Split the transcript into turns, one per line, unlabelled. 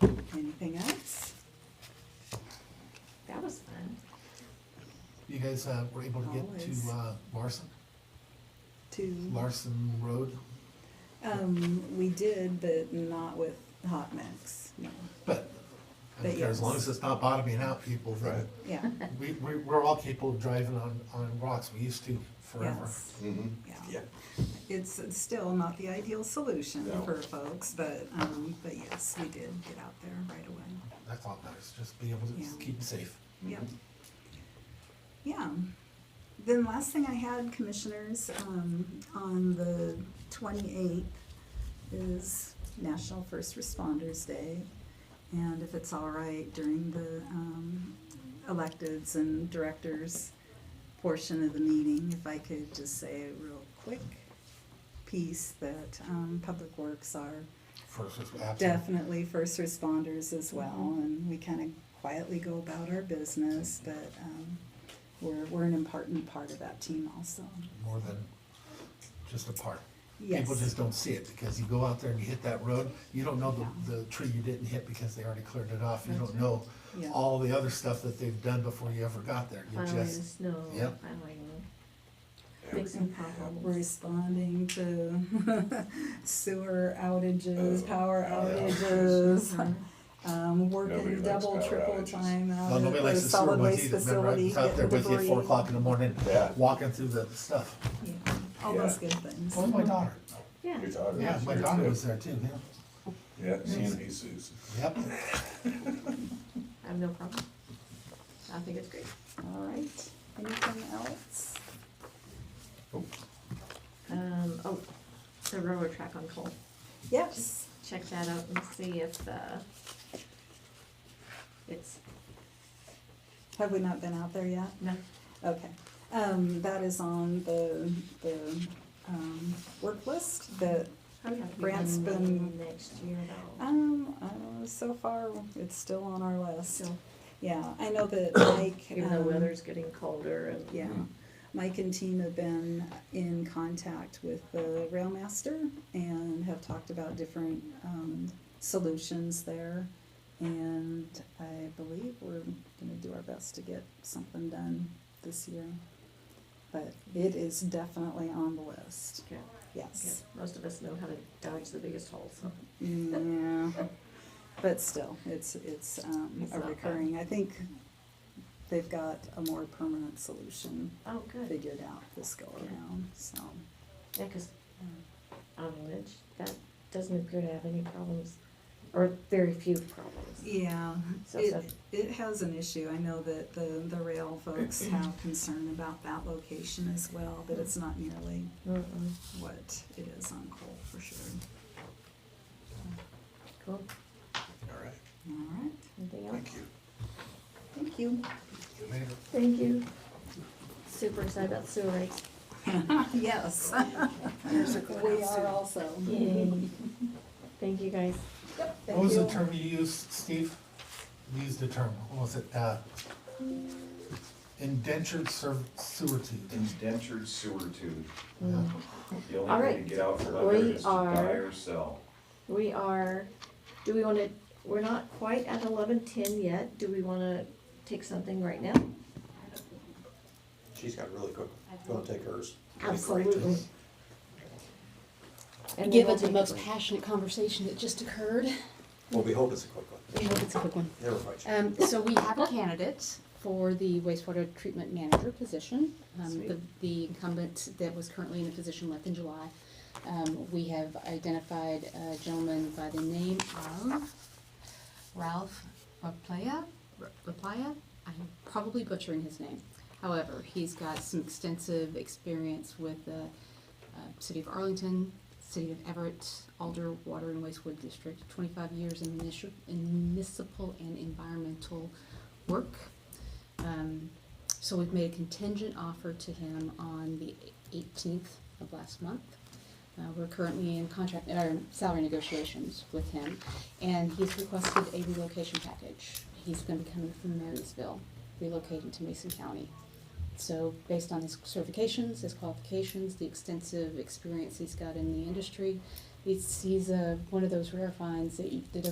Anything else?
That was fun.
You guys uh, were able to get
Always.
to uh, Larson,
To,
Larson Road,
um, we did, but not with Hot Mix, no,
but
But
I don't care,
yes.
as long as it's not bottoming out people, then
yeah,
we, we, we're all capable of driving on, on rocks, we used to forever.
yes,
Mm-hmm.
yeah. It's it's still not the ideal solution
No.
for folks, but, um, but yes, we did get out there right away,
That's all that is, just being able to
Yeah.
keep it safe.
yep. Yeah. Then last thing I had, commissioners, um, on the twenty-eighth is National First Responders Day. And if it's all right, during the, um, electeds and directors portion of the meeting, if I could just say a real quick piece that, um, Public Works are
First, was absolutely,
definitely first responders as well, and we kind of quietly go about our business, but um, we're, we're an important part of that team also.
more than just a part. People
Yes,
just don't see it, because you go out there and you hit that road, you don't know the, the tree you didn't hit because they already cleared it off. You
That's
don't know
yeah.
all the other stuff that they've done before you ever got there. You
Plowing
just,
snow,
Yep.
plowing, fixing
We're
potholes.
responding to sewer outages,
Oh,
power
yeah.
outages,
Mhm.
um,
Nobody
working
likes
double,
power
triple
outages.
time out
Well,
at
nobody
the
likes the sewer
Um, solid
ones
waste
either, remember, I
facility,
was out there
getting
with you at
debris.
four o'clock in the morning,
Yeah.
walking through the stuff.
Yeah, All
Yeah.
those good things.
Oh, my daughter,
Yeah,
Your daughter
yeah,
was
my
here,
daughter
too.
was there too, yeah,
Yeah, she and Jesus.
yep.
I have no problem. I think it's great.
All right, anything else?
Um, oh, the railroad track on Cole.
Yes.
Check that out and see if, uh, it's,
Have we not been out there yet?
no,
Okay. Um, that is on the, the, um, work list that,
probably have to be
Grant's
done
been-
next year though.
um, uh, so far, it's still on our list.
So,
Yeah, I know that Mike,
Even though
um,
weather's getting colder and.
yeah. Mike and team have been in contact with the railmaster and have talked about different, um, solutions there. And I believe we're gonna do our best to get something done this year. But it is definitely on the list,
Yeah, yeah,
yes.
most of us know how to dodge the biggest hole, so.
Yeah, but still, it's, it's, um,
It's
a
not bad.
recurring, I think they've got a more permanent solution
Oh, good.
figured out this go around, so.
Yeah, 'cause
um,
on Lynch, that doesn't appear to have any problems, or very few problems.
Yeah,
So
it,
sad.
it has an issue, I know that the, the rail folks have concern about that location as well, but it's not nearly
Mm-mm.
what it is on coal for sure.
Cool,
All right,
All right,
anything else?
thank you.
thank you.
Later.
Thank you. Super excited about sewer rates.
Yes. We are also.
Yay. Thank you, guys.
What was the term you used, Steve? You used the term, what was it, uh, indentured serv- servitude?
Indentured servitude.
Mm.
Yeah.
The
All
only way to
right.
get out from
We
under is to die
are-
or sell.
We are, do we wanna, we're not quite at eleven ten yet, do we wanna take something right now?
She's got really quick, gonna take hers.
Absolutely. And then
Give
we'll
it the
take a
most
break.
passionate conversation that just occurred.
Well, we hope it's a quick one.
We hope it's a quick one.
Never mind.
Um, so we have a candidate for the wastewater treatment manager position. Um, the, the incumbent that was currently in the position left in July. Um, we have identified a gentleman by the name of Ralph Raplaya. Raplaya? I'm probably butchering his name. However, he's got some extensive experience with the uh, City of Arlington, City of Everett, Alder Water and Wastewood District, 25 years in municipi- in municipal and environmental work. Um, So we've made a contingent offer to him on the 18th of last month. Uh, We're currently in contract, or salary negotiations with him, and he's requested a relocation package. He's gonna be coming from Marysville, relocating to Mason County. So based on his certifications, his qualifications, the extensive experience he's got in the industry, he's, he's uh, one of those rare finds that you, that